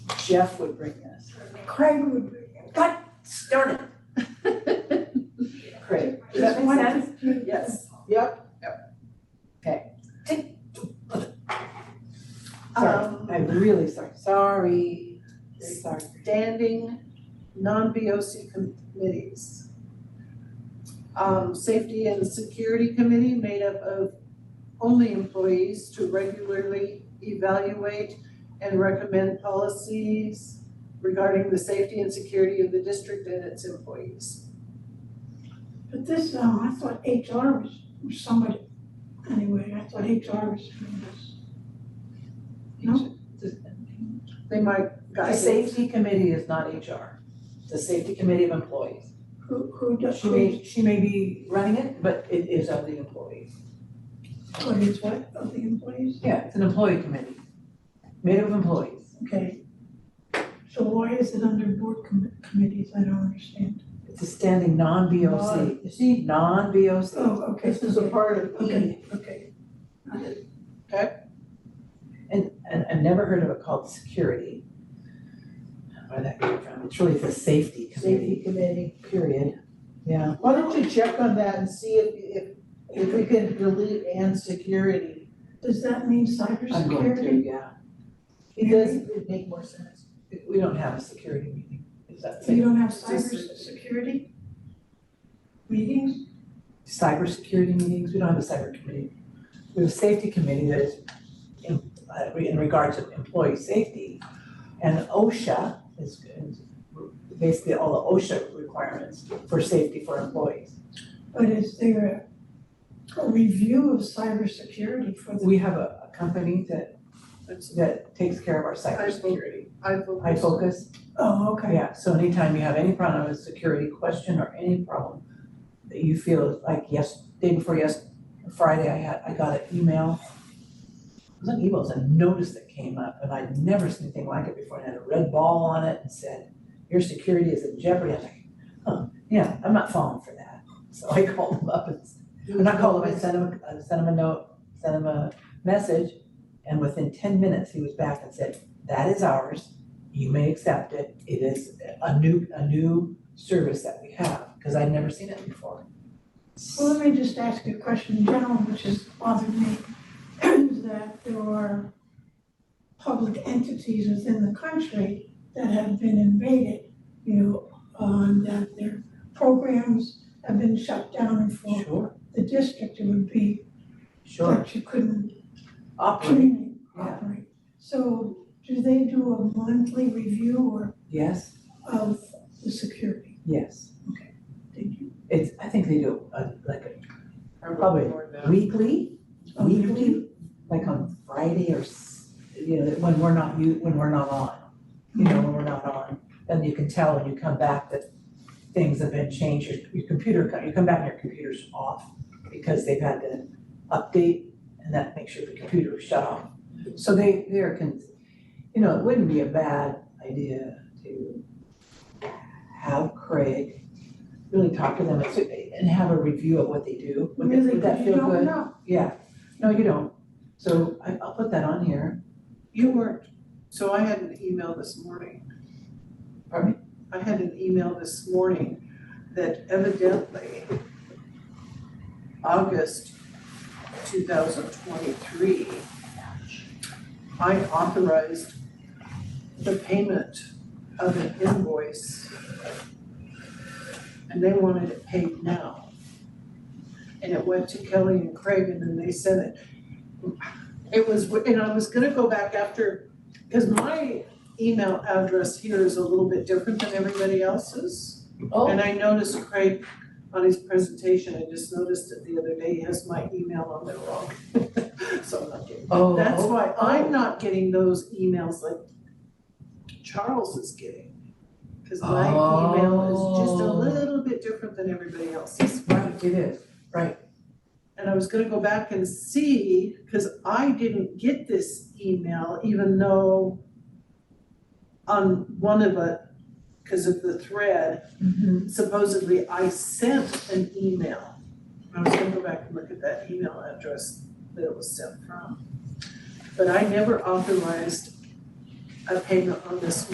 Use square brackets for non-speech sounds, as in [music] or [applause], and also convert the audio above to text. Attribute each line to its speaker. Speaker 1: Jeff would bring this. Craig would, God, darn it. Craig.
Speaker 2: Does that make sense?
Speaker 1: Yes. Yep. Yep. Okay. Sorry,
Speaker 2: Um,
Speaker 1: I'm really sorry, sorry, sorry.
Speaker 2: standing non-BOC committees. Um, safety and security committee made up of only employees to regularly evaluate and recommend policies regarding the safety and security of the district and its employees.
Speaker 3: But this, um, I thought HR was, was somebody, anyway, I thought HR was doing this. No?
Speaker 2: They might guide
Speaker 1: The
Speaker 2: it.
Speaker 1: safety committee is not HR, the safety committee of employees.
Speaker 3: Who, who does,
Speaker 1: She
Speaker 3: who,
Speaker 1: may, she may be running it, but it is of the employees.
Speaker 3: what is what, of the employees?
Speaker 1: Yeah, it's an employee committee, made up of employees.
Speaker 3: Okay. So why is it under board com- committees? I don't understand.
Speaker 1: It's a standing non-BOC,
Speaker 3: You see?
Speaker 1: non-BOC.
Speaker 3: Oh, okay.
Speaker 1: part of
Speaker 3: Okay, okay.
Speaker 1: And, and I've never heard of it called security. Where that came from, it's really the safety
Speaker 4: Safety
Speaker 1: committee,
Speaker 4: Committee.
Speaker 1: period, yeah.
Speaker 4: Why don't you check on that and see if, if, if we can delete and security?
Speaker 3: Does that mean
Speaker 1: I'm going to,
Speaker 3: cybersecurity?
Speaker 1: yeah.
Speaker 4: Because it'd make more sense.
Speaker 1: We- We don't have a security meeting, is that
Speaker 3: You
Speaker 1: safe?
Speaker 3: don't have
Speaker 2: Just-
Speaker 3: cybersecurity? Meetings?
Speaker 1: Cybersecurity meetings, we don't have a cyber committee. We have a safety committee that is in, uh, in regards to employee safety. And OSHA is, is basically all the OSHA requirements for safety for employees.
Speaker 3: But is there a, a review of cybersecurity for the,
Speaker 1: We have a, a company that,
Speaker 2: That's-
Speaker 1: that takes care of our cybersecurity.
Speaker 2: I vote.
Speaker 1: I focus,
Speaker 3: oh, okay.
Speaker 1: yeah, so anytime you have any problem with security question or any problem that you feel like yes, day before yes, Friday, I had, I got an email. It was an email, it was a notice that came up and I'd never seen anything like it before, and it had a red ball on it and said, your security is in jeopardy, I'm like, huh, yeah, I'm not falling for that. So I [laughs] called them up and, and I called him, I sent him, I sent him a note, sent him a message, and within ten minutes, he was back and said, that is ours. You may accept it. It is a new, a new service that we have, because I'd never seen it before.
Speaker 3: Well, let me just ask you a question in general, which has bothered me, [clears throat] is that there are public entities within the country that have been invaded, you know, um, that their programs have been shut down and for
Speaker 1: Sure,
Speaker 3: the district, it would be
Speaker 1: sure.
Speaker 3: that you couldn't
Speaker 1: Operate,
Speaker 3: communicate,
Speaker 1: Yeah.
Speaker 3: operate. So do they do a monthly review or
Speaker 1: yes,
Speaker 3: of the security?
Speaker 1: yes.
Speaker 3: Did you-
Speaker 1: It's, I think they do, uh, like
Speaker 2: I vote
Speaker 1: probably.
Speaker 2: for it now.
Speaker 1: a weekly,
Speaker 3: Oh, you
Speaker 1: weekly, like on Friday or, s- you know, when we're not, you, when we're not on. You know, when we're not on, then you can tell when you come back that things have been changed, your, your computer, co- you come back and your computer's off because they've had to update and that makes sure the computer is shut off. So they, they're, con- you know, it wouldn't be a bad idea to have Craig really talk to them and see- and have a review of what they do. Would that-
Speaker 3: Really,
Speaker 1: would that
Speaker 3: you
Speaker 1: feel
Speaker 3: don't
Speaker 1: good?
Speaker 3: know.
Speaker 1: Yeah, no, you don't. So I, I'll put that on here.
Speaker 2: You weren't, so I had an email this morning.
Speaker 1: Pardon
Speaker 2: I had an email this morning that evidently August two thousand twenty-three, I authorized the payment of an invoice and they wanted it paid now. And it went to Kelly and Craig and then they sent it. It was, and I was gonna go back after, because my email address here is a little bit different than everybody else's.
Speaker 1: Oh.
Speaker 2: And I noticed Craig on his presentation, I just noticed it the other day, he has my email on there wrong. [laughs] So I'm not getting,
Speaker 1: Oh,
Speaker 2: that's why I'm not getting those emails like Charles is getting. Because my email is just a
Speaker 1: Oh.
Speaker 2: little bit different than everybody else's.
Speaker 1: Right, it is.
Speaker 2: And I was gonna go back and see, cause I didn't get this email, even though on one of it, cause of the thread,
Speaker 3: Mm-hmm.
Speaker 2: supposedly I sent an email. I was gonna go back and look at that email address that it was sent from. But I never authorized a payment on this